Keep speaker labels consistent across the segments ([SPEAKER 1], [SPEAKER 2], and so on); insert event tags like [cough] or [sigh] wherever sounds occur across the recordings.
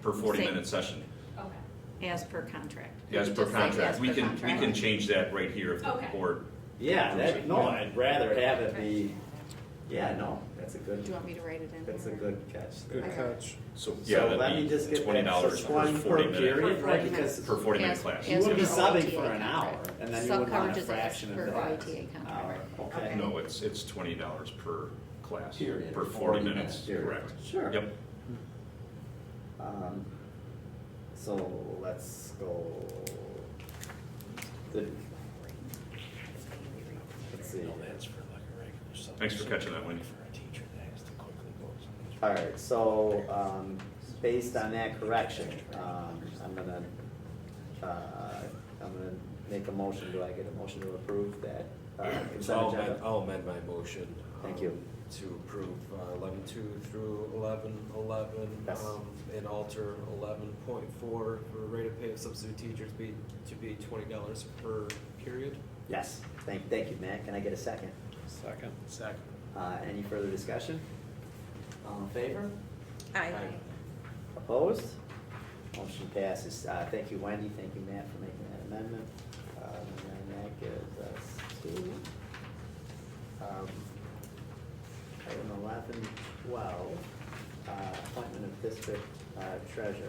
[SPEAKER 1] per
[SPEAKER 2] Same.
[SPEAKER 1] forty-minute session.
[SPEAKER 3] Okay,
[SPEAKER 2] as per contract.
[SPEAKER 1] As per
[SPEAKER 2] Just say
[SPEAKER 1] contract,
[SPEAKER 2] as
[SPEAKER 1] we
[SPEAKER 2] per
[SPEAKER 1] can, we can
[SPEAKER 2] contract.
[SPEAKER 1] change that right here if the
[SPEAKER 3] Okay.
[SPEAKER 1] board,
[SPEAKER 4] Yeah, that, no, I'd rather have it be, yeah, no, that's a
[SPEAKER 2] Do you
[SPEAKER 4] good,
[SPEAKER 2] want me to write it in?
[SPEAKER 4] that's a
[SPEAKER 2] here?
[SPEAKER 4] good catch.
[SPEAKER 5] Good
[SPEAKER 4] there.
[SPEAKER 5] catch.
[SPEAKER 1] so,
[SPEAKER 4] So
[SPEAKER 1] yeah,
[SPEAKER 4] let me
[SPEAKER 1] that'd
[SPEAKER 4] just
[SPEAKER 1] be
[SPEAKER 4] get
[SPEAKER 1] twenty
[SPEAKER 4] that, so
[SPEAKER 1] dollars
[SPEAKER 4] it's
[SPEAKER 1] per
[SPEAKER 4] one per
[SPEAKER 1] forty minute.
[SPEAKER 4] period, right,
[SPEAKER 2] Per
[SPEAKER 4] because.
[SPEAKER 1] Per forty minute
[SPEAKER 2] As-
[SPEAKER 1] class.
[SPEAKER 4] You
[SPEAKER 2] as
[SPEAKER 4] would be
[SPEAKER 2] per
[SPEAKER 4] subbing
[SPEAKER 2] OTA
[SPEAKER 4] for an hour,
[SPEAKER 2] contract.
[SPEAKER 4] and then you would want
[SPEAKER 2] Sub-coverage
[SPEAKER 4] a
[SPEAKER 2] is
[SPEAKER 4] fraction of
[SPEAKER 2] per
[SPEAKER 4] that.
[SPEAKER 2] OTA
[SPEAKER 4] Hour,
[SPEAKER 2] contract.
[SPEAKER 4] okay.
[SPEAKER 1] No, it's, it's twenty dollars per class,
[SPEAKER 4] Period.
[SPEAKER 1] per
[SPEAKER 4] 40
[SPEAKER 1] forty minutes,
[SPEAKER 4] minutes,
[SPEAKER 1] correct.
[SPEAKER 4] sure. [laughs]
[SPEAKER 1] Yep,
[SPEAKER 4] Um, so let's go. The, let's see.
[SPEAKER 1] Thanks for catching that, Wendy.
[SPEAKER 4] All right, so, um, based on that correction, um, I'm gonna, uh, I'm gonna make a motion. Do I get a motion to approve that? uh,
[SPEAKER 5] So I'll
[SPEAKER 4] consent
[SPEAKER 5] amend,
[SPEAKER 4] agenda?
[SPEAKER 5] I'll amend my motion. um,
[SPEAKER 4] Thank you.
[SPEAKER 5] To approve uh, eleven two through eleven eleven. um,
[SPEAKER 4] Yes.
[SPEAKER 5] And alter eleven point four for rate of pay of substitute teachers be, to be twenty dollars per period.
[SPEAKER 4] Yes, thank, thank you, Matt. Can I get a second?
[SPEAKER 5] Second. Second.
[SPEAKER 4] Uh, any further discussion? All in favor?
[SPEAKER 2] Aye.
[SPEAKER 5] Aye.
[SPEAKER 4] Opposed? Motion passes. Uh, thank you, Wendy. Thank you, Matt, for making that amendment. Um, and that gives us two. Um, Item eleven twelve, uh, appointment of district uh, treasurer.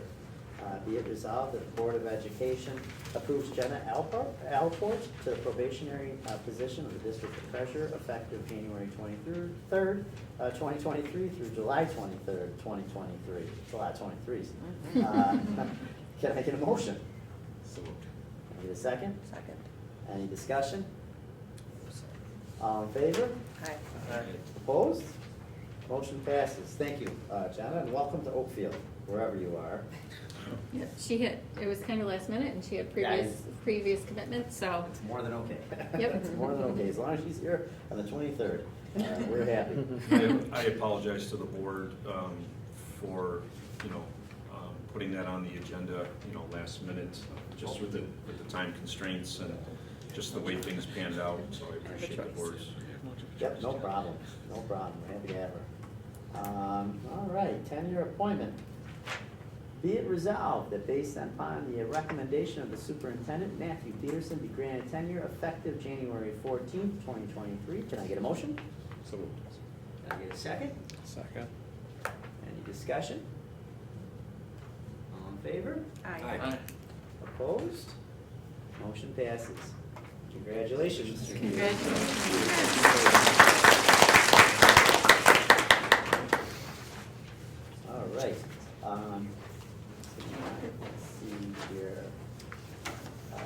[SPEAKER 4] Uh, be it resolved that the Board of Education approves Jenna Alport, Alport to the probationary uh, position of the district treasurer effective January twenty-third, uh, twenty twenty-three through July twenty-third, twenty twenty-three, July twenty-three. [laughs] Can I get a motion?
[SPEAKER 5] So moved.
[SPEAKER 4] Can I get a second?
[SPEAKER 2] Second.
[SPEAKER 4] Any discussion? All in favor?
[SPEAKER 2] Aye.
[SPEAKER 5] Aye.
[SPEAKER 4] Opposed? Motion passes. Thank you, uh, Jenna, and welcome to Oakfield, wherever you are.
[SPEAKER 2] Yeah, She had, it was kind of last minute and she had
[SPEAKER 4] Yeah, I-
[SPEAKER 2] previous, previous commitments, so.
[SPEAKER 4] It's more than okay.
[SPEAKER 2] Yep.
[SPEAKER 4] It's more than okay, as long as she's here on the twenty-third, Uh, we're happy.
[SPEAKER 1] I I apologize to the board um, for, you know, um, putting that on the agenda, you know, last minute, just with the, with the time constraints and just the way things panned out, so I appreciate the board's.
[SPEAKER 4] Yep, no problem, no problem, We're happy to have her. Um, all right, ten-year appointment. Be it resolved that based upon the recommendation of the superintendent, Matthew Peterson be granted tenure effective January fourteenth, twenty twenty-three. Can I get a motion?
[SPEAKER 5] So moved.
[SPEAKER 4] Can I get a second?
[SPEAKER 5] Second.
[SPEAKER 4] Any discussion? All in favor?
[SPEAKER 5] Aye.
[SPEAKER 4] Opposed? Motion passes. Congratulations, Mr. Keating. All right, um, so now, let's see here. Uh,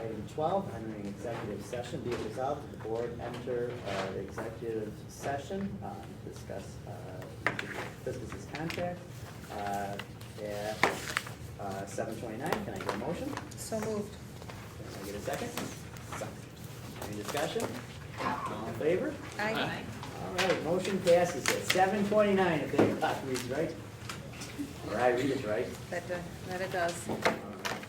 [SPEAKER 4] Item twelve, entering executive session, be it resolved that the board enter, uh, the executive session, uh, to discuss, uh, business's contract, uh, at, uh, seven twenty-nine, can I get a motion?
[SPEAKER 2] So moved.
[SPEAKER 4] Can I get a second? Any discussion? All in favor?
[SPEAKER 2] Aye.
[SPEAKER 4] All right, motion passes at seven twenty-nine, if that clock reads right. Or I read it right.
[SPEAKER 2] That, that it does.
[SPEAKER 4] All right.